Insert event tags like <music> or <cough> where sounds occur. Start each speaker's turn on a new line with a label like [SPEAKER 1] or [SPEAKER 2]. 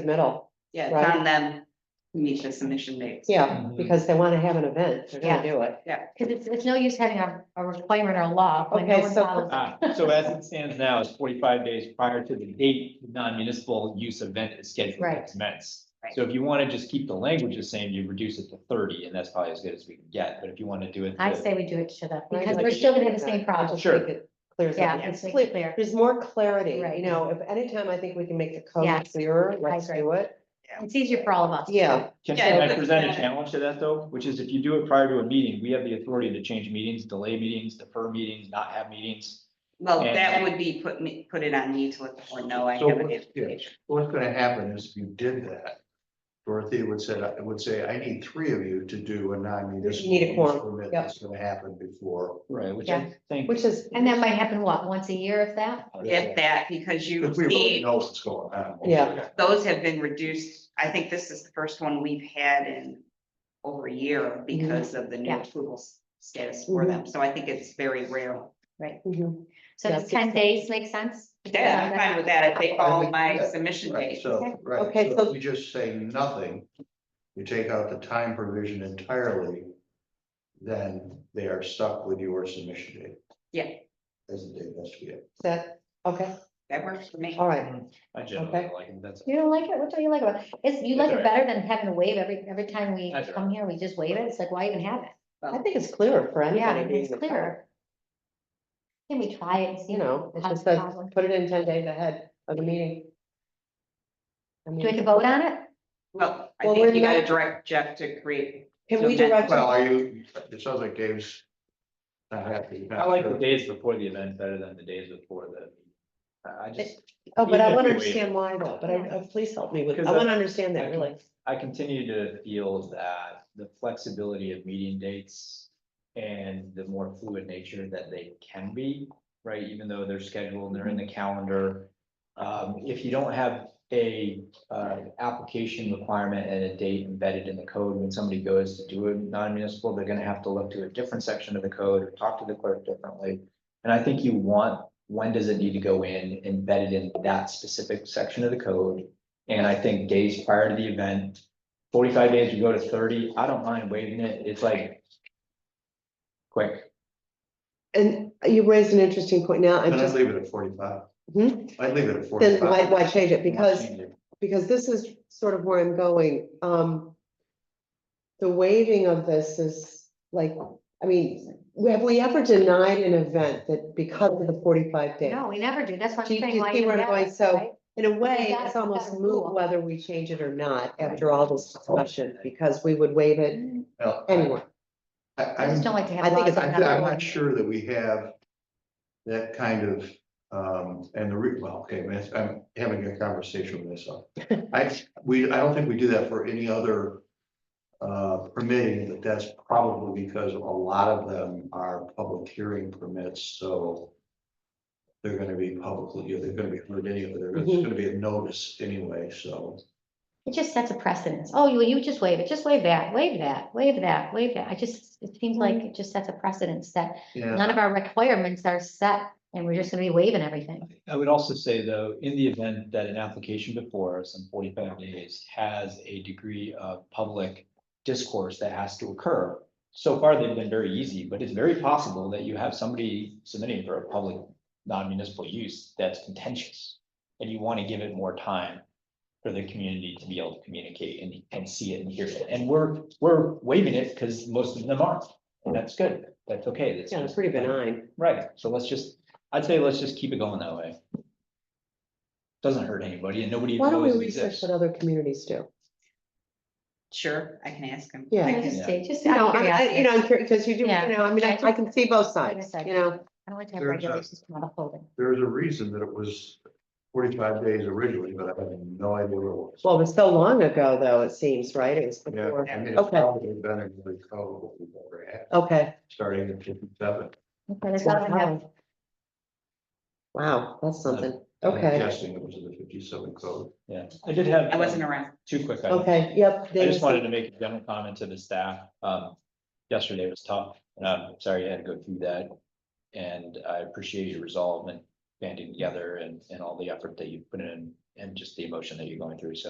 [SPEAKER 1] submittal,
[SPEAKER 2] Yeah, it's
[SPEAKER 1] Right.
[SPEAKER 2] on them to meet the submission dates.
[SPEAKER 1] yeah,
[SPEAKER 3] Mm-hmm.
[SPEAKER 1] because they wanna have an event, they're gonna do it.
[SPEAKER 3] Because it's, it's no use having a, a requirement or a law when no
[SPEAKER 1] Okay,
[SPEAKER 3] one
[SPEAKER 1] so-
[SPEAKER 3] follows.
[SPEAKER 4] Ah, so as it stands now, it's forty-five days prior to the date the non-municipal use event is scheduled to
[SPEAKER 3] Right.
[SPEAKER 4] commence.
[SPEAKER 2] Right.
[SPEAKER 4] So if you want to just keep the language the same, you reduce it to thirty, and that's probably as good as we can get, but if you want to do it.
[SPEAKER 3] I
[SPEAKER 4] to-
[SPEAKER 3] say we do it to the,
[SPEAKER 1] I'd
[SPEAKER 3] because
[SPEAKER 1] like
[SPEAKER 3] we're
[SPEAKER 1] to
[SPEAKER 3] still gonna
[SPEAKER 1] do
[SPEAKER 3] have the
[SPEAKER 1] that.
[SPEAKER 3] same problem.
[SPEAKER 4] Sure.
[SPEAKER 1] Think it Clears
[SPEAKER 3] Yeah,
[SPEAKER 1] up.
[SPEAKER 3] it's clear, clear.
[SPEAKER 1] There's more clarity, you
[SPEAKER 3] Right.
[SPEAKER 1] know, if anytime I think we can make the
[SPEAKER 3] Yeah.
[SPEAKER 1] code clearer,
[SPEAKER 3] I
[SPEAKER 1] let's
[SPEAKER 3] agree.
[SPEAKER 1] do it.
[SPEAKER 3] It's easier for all of us.
[SPEAKER 1] Yeah,
[SPEAKER 4] Can
[SPEAKER 2] Yeah,
[SPEAKER 4] can I
[SPEAKER 2] but-
[SPEAKER 4] present a challenge to that though, which is if you do it prior to a meeting, we have the authority to change meetings, delay meetings, defer meetings, not have meetings.
[SPEAKER 2] Well,
[SPEAKER 4] And-
[SPEAKER 2] that would be put me, put it on me to let the board know I
[SPEAKER 5] So
[SPEAKER 2] have an
[SPEAKER 5] what's- yeah.
[SPEAKER 2] application.
[SPEAKER 5] What's gonna happen is if you did that, Dorothea would say, I would say, I need three of you to do a non-municipal.
[SPEAKER 1] You need a
[SPEAKER 5] use
[SPEAKER 1] quorum,
[SPEAKER 5] permit
[SPEAKER 1] yep.
[SPEAKER 5] That's gonna happen before.
[SPEAKER 4] Right, which
[SPEAKER 3] Yeah.
[SPEAKER 4] I think.
[SPEAKER 1] which is,
[SPEAKER 3] And that might happen, what, once a year if that?
[SPEAKER 2] If that, because you
[SPEAKER 5] If we really
[SPEAKER 2] see,
[SPEAKER 5] know what's going on.
[SPEAKER 1] Yeah.
[SPEAKER 2] those have been reduced. I think this is the first one we've had in over a
[SPEAKER 1] Mm-hmm.
[SPEAKER 2] year because of the new
[SPEAKER 3] Yeah.
[SPEAKER 2] approval s- status for them. So I think it's very rare.
[SPEAKER 1] Mhm.
[SPEAKER 3] So
[SPEAKER 1] Yeah,
[SPEAKER 3] does ten days make sense?
[SPEAKER 2] Yeah, I'm fine with that if they follow my
[SPEAKER 5] Yeah,
[SPEAKER 2] submission
[SPEAKER 5] Right,
[SPEAKER 2] date.
[SPEAKER 5] so, right,
[SPEAKER 1] Okay,
[SPEAKER 5] so
[SPEAKER 1] so-
[SPEAKER 5] if you just say nothing, you take out the time provision entirely, then they are stuck with your submission date.
[SPEAKER 2] Yeah.
[SPEAKER 5] As the date has to be. it.
[SPEAKER 1] Is that, okay,
[SPEAKER 2] That works for me.
[SPEAKER 1] all right,
[SPEAKER 4] I generally
[SPEAKER 1] Okay.
[SPEAKER 4] like it, that's.
[SPEAKER 3] You don't like it? What do you like about it? It's, you
[SPEAKER 4] That's
[SPEAKER 3] like it
[SPEAKER 4] all
[SPEAKER 3] better than having to waive every, every time we
[SPEAKER 4] That's all
[SPEAKER 3] come here, we just waive it. It's like, why even have it?
[SPEAKER 1] I think it's clearer for
[SPEAKER 3] Yeah,
[SPEAKER 1] anybody. to use
[SPEAKER 3] it's
[SPEAKER 1] the code.
[SPEAKER 3] clearer. Can we try it and see?
[SPEAKER 1] You know, it
[SPEAKER 3] How's
[SPEAKER 1] just
[SPEAKER 3] the
[SPEAKER 1] says,
[SPEAKER 3] problem?
[SPEAKER 1] put it in ten days ahead of the meeting. I
[SPEAKER 3] Do we have
[SPEAKER 1] mean,
[SPEAKER 3] to vote on it?
[SPEAKER 2] Well, I
[SPEAKER 1] Well, we're
[SPEAKER 2] think you gotta
[SPEAKER 1] not-
[SPEAKER 2] direct Jeff to create.
[SPEAKER 1] can we direct?
[SPEAKER 5] Well, are you, it sounds like Dave's not happy.
[SPEAKER 4] I like the days before the event better than the days before the. I I just.
[SPEAKER 1] Oh, but I
[SPEAKER 4] even
[SPEAKER 1] wanna
[SPEAKER 4] if we waive it.
[SPEAKER 1] understand why though, but I, uh, please help me with, I
[SPEAKER 4] Because
[SPEAKER 1] wanna understand that
[SPEAKER 4] I-
[SPEAKER 1] really.
[SPEAKER 4] I continue to feel that the flexibility of meeting dates and the more fluid nature that they can be, right, even though they're scheduled, they're in the calendar. Um, if you don't have a, uh, application requirement and a date embedded in the code, when somebody goes to do a non-municipal, they're gonna have to look to a different section of the code or talk to the clerk differently. And I think you want, when does it need to go in, embedded in that specific section of the code? And I think days prior to the event, forty-five days, you go to thirty, I don't mind waiving it, it's like. Quick,
[SPEAKER 1] And you raised an interesting point now, I'm
[SPEAKER 5] Then I'd
[SPEAKER 1] just,
[SPEAKER 5] leave it at forty-five.
[SPEAKER 1] Hmm?
[SPEAKER 5] I'd leave it at
[SPEAKER 1] then
[SPEAKER 5] forty-five.
[SPEAKER 1] why, why change it? Because
[SPEAKER 4] Change it.
[SPEAKER 1] because this is sort of where I'm going, um. The waiving of this is like, I mean, have we ever denied an event that because of the forty-five days?
[SPEAKER 3] No, we never do. That's what
[SPEAKER 1] Do you- do
[SPEAKER 3] I'm saying.
[SPEAKER 1] you
[SPEAKER 3] why
[SPEAKER 1] see
[SPEAKER 3] even
[SPEAKER 1] where I'm
[SPEAKER 3] have
[SPEAKER 1] going?
[SPEAKER 3] it,
[SPEAKER 1] So-
[SPEAKER 3] right?
[SPEAKER 1] In a way,
[SPEAKER 3] that's
[SPEAKER 1] it's almost
[SPEAKER 3] not a
[SPEAKER 1] moot
[SPEAKER 3] rule.
[SPEAKER 1] whether we change it or not after all this discussion, because we would waive it
[SPEAKER 5] Well, I-
[SPEAKER 1] anyway.
[SPEAKER 5] I,
[SPEAKER 3] I just
[SPEAKER 5] I'm,
[SPEAKER 3] don't like to
[SPEAKER 1] I
[SPEAKER 3] have
[SPEAKER 1] think
[SPEAKER 3] laws.
[SPEAKER 1] it's-
[SPEAKER 3] that
[SPEAKER 5] I'm
[SPEAKER 3] have
[SPEAKER 5] I'm
[SPEAKER 3] rules.
[SPEAKER 5] not sure that we have that kind of, um, and the re, well, okay, that's- I'm having a conversation
[SPEAKER 3] <laughs>
[SPEAKER 5] with myself. I, we, I don't think we do that for any other uh, permitting, but that's probably because a lot of them are public hearing permits, so they're gonna be publicly, they're gonna be heard anyway, there's
[SPEAKER 3] Mm-hmm.
[SPEAKER 1] Mhm.
[SPEAKER 5] gonna be a notice anyway, so.
[SPEAKER 3] It just sets a precedence. Oh, you, you just waive it, just waive that, waive that, waive that, waive that. I just, it seems like
[SPEAKER 1] Mm-hmm.
[SPEAKER 3] it just sets a precedence that
[SPEAKER 5] Yeah.
[SPEAKER 3] none of our requirements are set and we're just gonna be waiving everything.
[SPEAKER 4] I would also say though, in the event that an application before us in forty-five days has a degree of public discourse that has to occur. So far, they've been very easy, but it's very possible that you have somebody submitting for a public non-municipal use that's contentious. And you want to give it more time for the community to be able to communicate and, and see it and hear it. And we're, we're waiving it because most of them aren't. And that's good. That's okay. That's
[SPEAKER 1] Yeah, it's
[SPEAKER 4] just-
[SPEAKER 1] pretty benign.
[SPEAKER 4] Right, so let's just, I'd say let's just keep it going that way. Doesn't hurt anybody and nobody
[SPEAKER 1] Why don't we
[SPEAKER 4] knows it
[SPEAKER 1] research
[SPEAKER 4] exists.
[SPEAKER 1] what other communities do?
[SPEAKER 2] Sure, I can ask him.
[SPEAKER 1] Yeah.
[SPEAKER 2] I
[SPEAKER 3] You know,
[SPEAKER 2] can-
[SPEAKER 3] Just, say- just.
[SPEAKER 1] You
[SPEAKER 3] out of
[SPEAKER 1] know, I- I, you
[SPEAKER 3] curiosity.
[SPEAKER 1] know, I'm curious, because you do, you
[SPEAKER 3] Yeah.
[SPEAKER 1] know, I mean, I, I can see both sides, you know?
[SPEAKER 3] I don't like to have
[SPEAKER 5] There's a-
[SPEAKER 3] regulations come out of holding.
[SPEAKER 5] There's a reason that it was forty-five days originally, but I have no idea what it was.
[SPEAKER 1] Well, it was so long ago, though, it seems, right? It was
[SPEAKER 5] Yeah,
[SPEAKER 1] before.
[SPEAKER 5] I mean,
[SPEAKER 1] Okay.
[SPEAKER 5] it's probably been in the code we've ever had,
[SPEAKER 1] Okay.
[SPEAKER 5] starting in fifty-seven.
[SPEAKER 3] Okay, there's nothing that-
[SPEAKER 1] Wow, Wow, that's something. Okay,
[SPEAKER 5] Guessing it was in the fifty-seven code.
[SPEAKER 4] Yeah, I did have.
[SPEAKER 2] I wasn't
[SPEAKER 4] um,
[SPEAKER 2] around.
[SPEAKER 4] Two quick items.
[SPEAKER 1] okay, yep.
[SPEAKER 4] I just
[SPEAKER 1] Davidson.
[SPEAKER 4] wanted to make a general comment to the staff. Um, yesterday was tough, and I'm sorry you had to go through that. And I appreciate your resolve and banding together and, and all the effort that you put in and just the emotion that you're going through, so